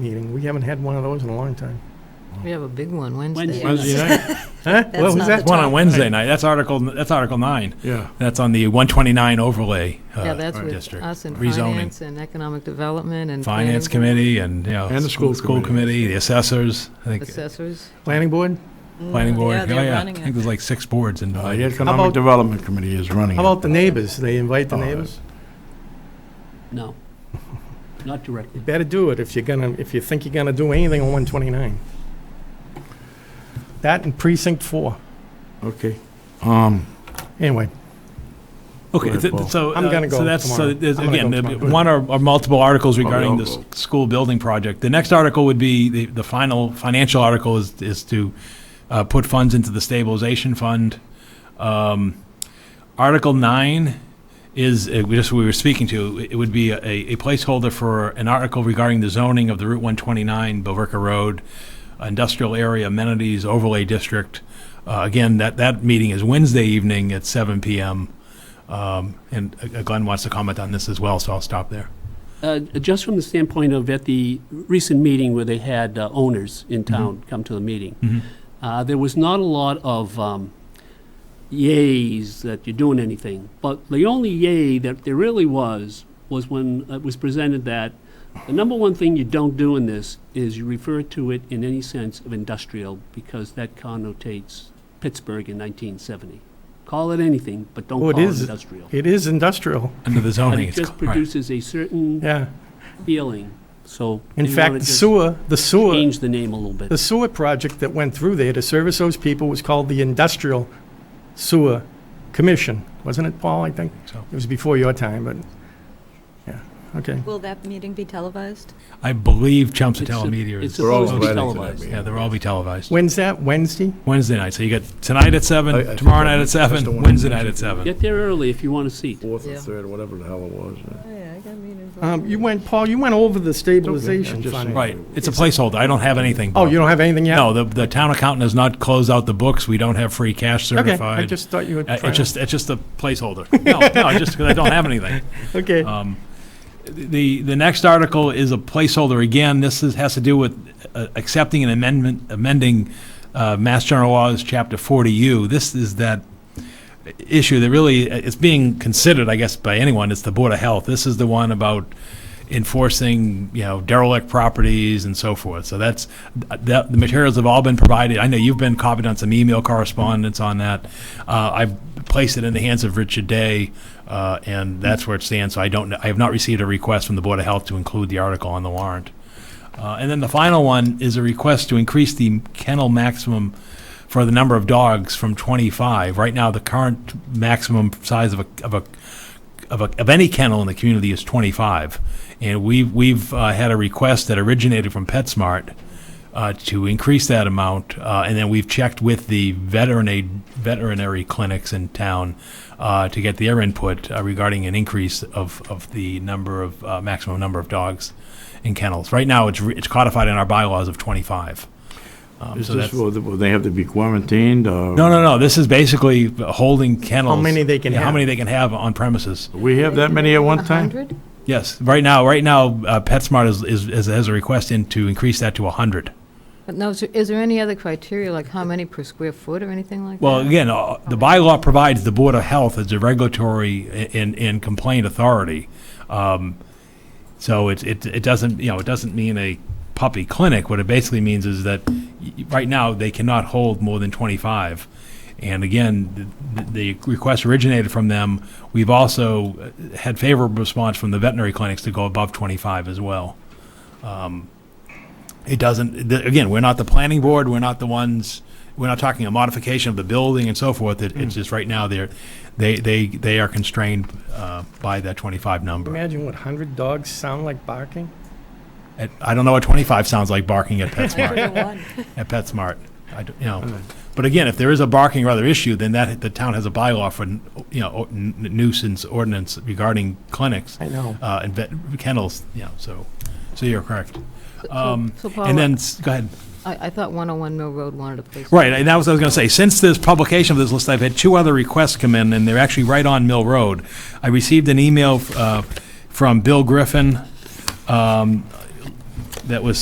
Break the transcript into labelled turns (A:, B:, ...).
A: meeting. We haven't had one of those in a long time.
B: We have a big one Wednesday.
C: Wednesday.
A: Wednesday night? Huh? What was
B: not
A: that?
B: the
D: One on Wednesday night. That's article. That's article nine.
A: Yeah.
D: That's on the 129 overlay uh,
B: Yeah, that's with
D: district.
B: us and
D: rezoning.
B: finance and economic development and.
D: Finance
B: planning
D: committee and you know,
A: And the school
D: school
A: committee.
D: committee, the assessors. I
B: board,
D: think
B: Assessors.
A: Planning board?
D: planning board.
E: Yeah,
D: oh
E: they're
D: yeah. I
E: running
D: think
E: it.
D: there's like six boards in.
C: Uh, The
A: How
C: Economic
A: about-
C: Development Committee is running
A: How
C: it.
A: about the neighbors? They invite the
C: Oh,
A: neighbors?
F: No, not directly.
A: Better do it if you're gonna, if you think you're gonna do anything on 129. That and precinct four.
C: Okay. Um,
A: Anyway,
D: Okay,
C: Right,
D: th-
C: Paul.
D: so.
A: I'm
D: uh,
A: gonna
D: So
A: go
D: that's, so
A: tomorrow.
D: there's,
A: I'm gonna go
D: again, there'd be
A: tomorrow.
D: one or, or multiple articles regarding
C: I'll
D: this
C: go.
D: school building project. The next article would be, the, the final financial article is, is to, uh, put funds into the stabilization fund. Um, Article nine is, uh, we just, we were speaking to, it would be a, a placeholder for an article regarding the zoning of the Route one twenty-nine, Billerica Road, industrial area amenities overlay district. Uh, again, that, that meeting is Wednesday evening at seven PM. Um, And uh, Glenn wants to comment on this as well, so I'll stop there.
F: Uh, Just from the standpoint of at the recent meeting where they had uh, owners in
A: Mm-hmm.
F: town come to the meeting, uh, there was not a lot of um, yays that you're doing anything, but the only yay that there really was, was when it was presented that the number one thing you don't do in this is you refer to it in any sense of industrial, because that connotates Pittsburgh in 1970. Call it anything, but don't
A: Oh,
F: call
A: it
F: it
A: is-
F: industrial.
A: it is industrial,
D: Under the
F: But
D: zoning.
F: it
D: it's
F: just
D: cl- right.
F: produces a certain
A: yeah.
F: feeling, so.
A: In
F: they
A: fact,
F: wanna
A: the
F: just
A: sewer, the sewer,
F: Change the name a little bit.
A: the sewer project that went through there to service those people was called the Industrial Sewer Commission, wasn't it, Paul, I think?
D: So-
A: It was before your time, but, yeah, okay.
E: Will that meeting be televised?
D: I believe
F: It's
D: Chumsatella
F: a-
D: Meteor
F: It's
D: is,
C: We're all
F: supposed to be
C: invited to that
F: televised.
C: meeting.
D: yeah, they'll all be televised.
A: When's that, Wednesday?
D: Wednesday night, so you got tonight at
C: I- I
D: seven,
C: think
D: tomorrow
C: that-
D: night at
C: that's the
D: seven,
C: one
D: Wednesday
C: you
D: night at
C: mentioned.
D: seven.
F: Get there early if you want a seat.
C: fourth or
B: Yeah.
C: third, whatever the hell it was. yeah.
E: Oh, yeah, I got a meeting.
A: Um, you went, Paul, you went over the stabilization
C: I'm just
A: fund.
C: saying.
D: Right, it's a placeholder, I don't have anything.
A: Oh,
D: Bob.
A: you don't have anything yet?
D: No, the, the town accountant has not closed out the books, we don't have free cash
A: Okay,
D: certified.
A: I just thought you were
D: Uh,
A: trying.
D: It's just, it's just a placeholder. No, no, just because I don't have anything.
A: Okay.
D: Um, The, the next article is a placeholder. Again, this is, has to do with uh, accepting an amendment, amending uh, Mass General Laws, Chapter 40U. This is that issue that really, it's being considered, I guess, by anyone. It's the Board of Health. This is the one about enforcing, you know, derelict properties and so forth. So that's, that, the materials have all been provided. I know you've been copied on some email correspondence on that. Uh, I've placed it in the hands of Richard Day, uh, and that's where it stands. So I don't, I have not received a request from the Board of Health to include the article on the warrant. Uh, And then the final one is a request to increase the kennel maximum for the number of dogs from 25. Right now, the current maximum size of a, of a, of a, of any kennel in the community is 25. And we've, we've uh, had a request that originated from PetSmart uh, to increase that amount. Uh, And then we've checked with the veterinary, veterinary clinics in town uh, to get their input uh, regarding an increase of, of the number of, uh, maximum number of dogs in kennels. Right now, it's, re- it's codified in our bylaws of 25. Um,
C: Is
D: so
C: this,
D: that's-
C: will will they have to be quarantined uh, or?
D: no, no, no. This is basically holding kennels.
A: How many they can
D: Yeah, How
A: have.
D: many they can have on premises.
C: We have that many at one time?
B: 100?
D: Yes. Right now, right now, uh, PetSmart is, is, is has a request in to increase that to hundred.
B: But no, is there- is there any other criteria, like how many per square foot or anything like that?
D: Well, again, uh, the bylaw provides the Board of Health as a regulatory a- and, and complaint authority. Um, so it, it, it doesn't, you know, it doesn't mean a puppy clinic. What it basically means is that y- y- right now they cannot hold more than 25. And again, the, the request originated from them. We've also uh, had favorable response from the veterinary clinics to go above 25 as well. It doesn't, th- again, we're not the planning board, we're not the ones, we're not talking a modification of the building and so forth. It-
A: Hmm.
D: It's just right now, they're, they, they, they are constrained uh, by that 25 number.
A: Imagine what 100 dogs sound like barking?
D: At- I don't know what 25 sounds like barking at PetSmart,
E: One.
D: at PetSmart. I, don't- you
A: Hmm.
D: know. But again, if there is a barking or other issue, then that, the town has a bylaw for, you know, n- nuisance ordinance regarding clinics
A: I know.
D: uh, and vet kennels, you know, so, so you're correct.
B: So-
D: Um,
B: So Paul,
D: And then, s- go ahead.
B: I, I thought 101 Mill Road wanted a place.
D: Right, and that was what I was going to say. Since this publication of this list, I've had two other requests come in, and they're actually right on Mill Road. I received an email uh, from Bill Griffin um, that was